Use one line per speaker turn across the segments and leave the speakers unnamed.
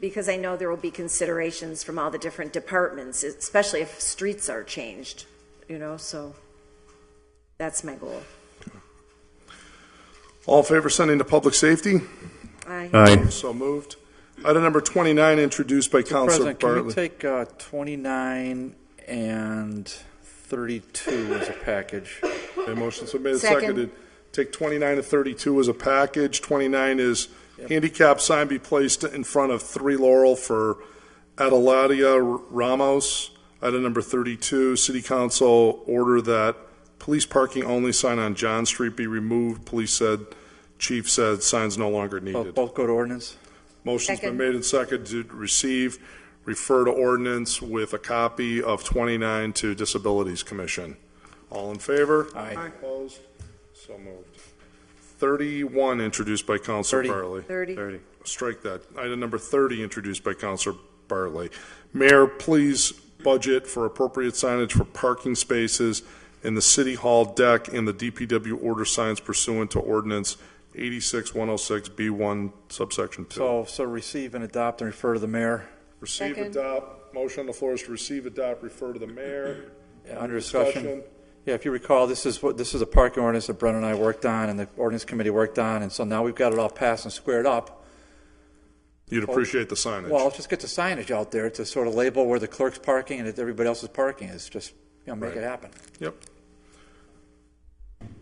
Because I know there will be considerations from all the different departments, especially if streets are changed, you know, so that's my goal.
All in favor of sending to public safety?
Aye.
So moved. Item number 29, introduced by Councilor
President, can we
Bartley.
take uh, 29 and 32 as a package?
A motion's been made and
Second.
seconded. Take 29 to 32 as a package. 29 is handicap sign be placed in front of 3 Laurel for Adeladia Ramos. Item number 32, City Council order that police parking only sign on John Street be removed. Police said, chief said, signs no longer
Both
needed.
both go to ordinance?
Motion's been
Second.
made and seconded to receive, refer to ordinance with a copy of 29 to Disabilities Commission. All in favor?
Aye. Aye.
Opposed? So moved. 31, introduced by Counselor
30.
Bartley.
Thirty.
Strike that. Item number 30, introduced by Counselor Bartley. Mayor, please budget for appropriate signage for parking spaces in the City Hall deck and the DPW order signs pursuant to ordinance 86106B1 subsection 2.
So, so receive and adopt and refer to the mayor.
Receive,
Second.
adopt, motion on the floor is to receive, adopt, refer to the mayor.
Yeah, Uh, Under discussion. Yeah, if you recall, this is what, this is a parking ordinance that Brent and I worked on, and the ordinance committee worked on, and so now we've got it all passed and squared up.
You'd appreciate the signage.
Well, let's just get the signage out there to sort of label where the clerk's parking and that everybody else's parking is, just, you know, make it
Right.
happen.
Yep.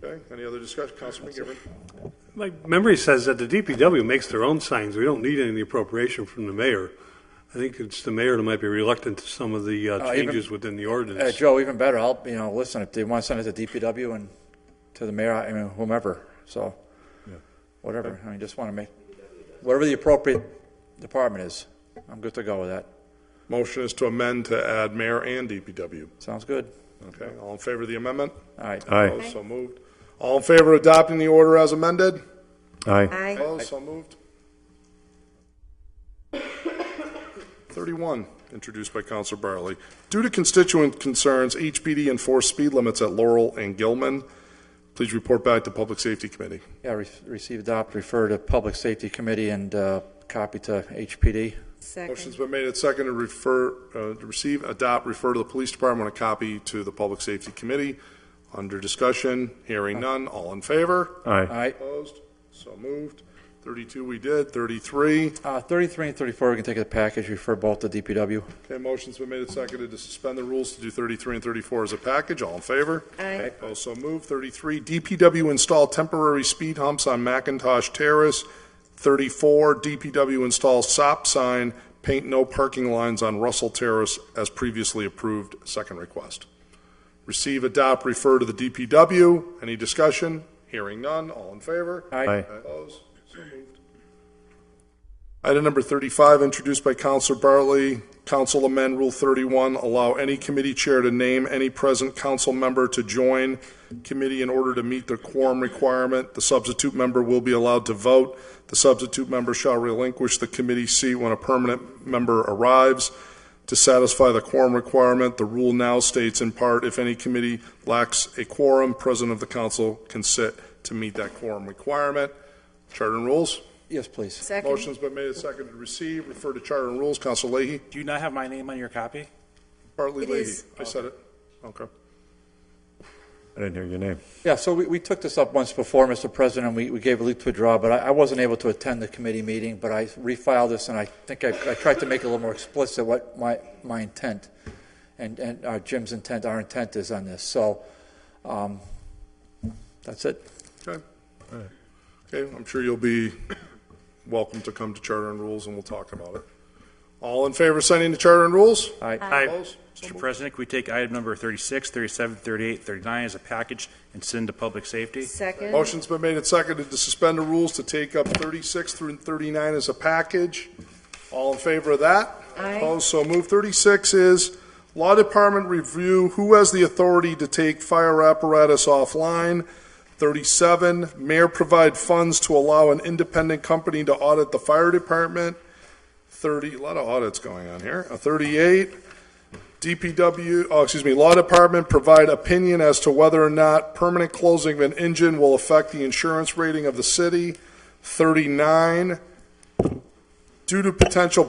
Okay, any other discussion, Councilman McGivern?
My memory says that the DPW makes their own signs. We don't need any appropriation from the mayor. I think it's the mayor that might be reluctant to some of the uh,
Uh, even-
changes within the
Uh,
ordinance.
Joe, even better, I'll, you know, listen, if they want to send it to DPW and to the mayor, I mean, whomever, so, whatever, I mean, just want to make, whatever the appropriate department is, I'm good to go with that.
Motion is to amend to add mayor and DPW.
Sounds good?
Okay, all in favor of the amendment?
All right.
Opposed, so moved. All in favor of adopting the order as amended?
Aye.
Opposed, so moved. Thirty-one, introduced by Counselor Barley. Due to constituent concerns, HPD enforced speed limits at Laurel and Gilman. Please report back to Public Safety Committee.
Yeah, re- receive, adopt, refer to Public Safety Committee and uh, copy to HPD.
Second.
Motion's been made and seconded to refer, uh, to receive, adopt, refer to the Police Department, a copy to the Public Safety Committee. Under discussion, hearing none, all in favor?
All right,
Opposed? So moved. Thirty-two we did, thirty-three.
Uh, 33 and 34, we can take as a package, refer both to DPW.
Okay, motion's been made and seconded to suspend the rules to do 33 and 34 as a package. All in favor?
Aye.
Opposed, so moved. 33, DPW install temporary speed humps on Macintosh Terrace. 34, DPW install SOP sign, paint no parking lines on Russell Terrace as previously approved. Second request. Receive, adopt, refer to the DPW. Any discussion? Hearing none. All in favor?
Aye. Aye.
Opposed, so moved. Item number 35, introduced by Counselor Bartley. Council amend Rule 31, allow any committee chair to name any present council member to join committee in order to meet the quorum requirement. The substitute member will be allowed to vote. The substitute member shall relinquish the committee seat when a permanent member arrives. To satisfy the quorum requirement, the rule now states in part, if any committee lacks a quorum, president of the council can sit to meet that quorum requirement. Charter and rules?
Yes, please.
Second.
Motion's been made and seconded to receive, refer to Charter and Rules. Counsel Leahy?
Do you not have my name on your copy?
Bartley
It
Leahy.
is.
I said it. Okay.
I didn't hear your name.
Yeah, so we, we took this up once before, Mr. President, we, we gave a leave to withdraw, but I, I wasn't able to attend the committee meeting, but I refiled this, and I think I, I tried to make it a little more explicit what my, my intent and, and uh, Jim's intent, our intent is on this, so, um, that's it.
Okay. Okay, I'm sure you'll be welcome to come to Charter and Rules, and we'll talk about it. All in favor of sending to Charter and Rules?
All right.
Opposed? So
Mr.
moved.
President, can we take item number 36, 37, 38, 39 as a package and send to public safety?
Second.
Motion's been made and seconded to suspend the rules to take up 36 through 39 as a package. All in favor of that?
Aye.
Opposed, so moved. 36 is Law Department review, who has the authority to take fire apparatus offline? 37, Mayor provide funds to allow an independent company to audit the fire department? 30, a lot of audits going on here. Uh, 38, DPW, oh, excuse me, Law Department provide opinion as to whether or not permanent closing of an engine will affect the insurance rating of the city. 39, due to potential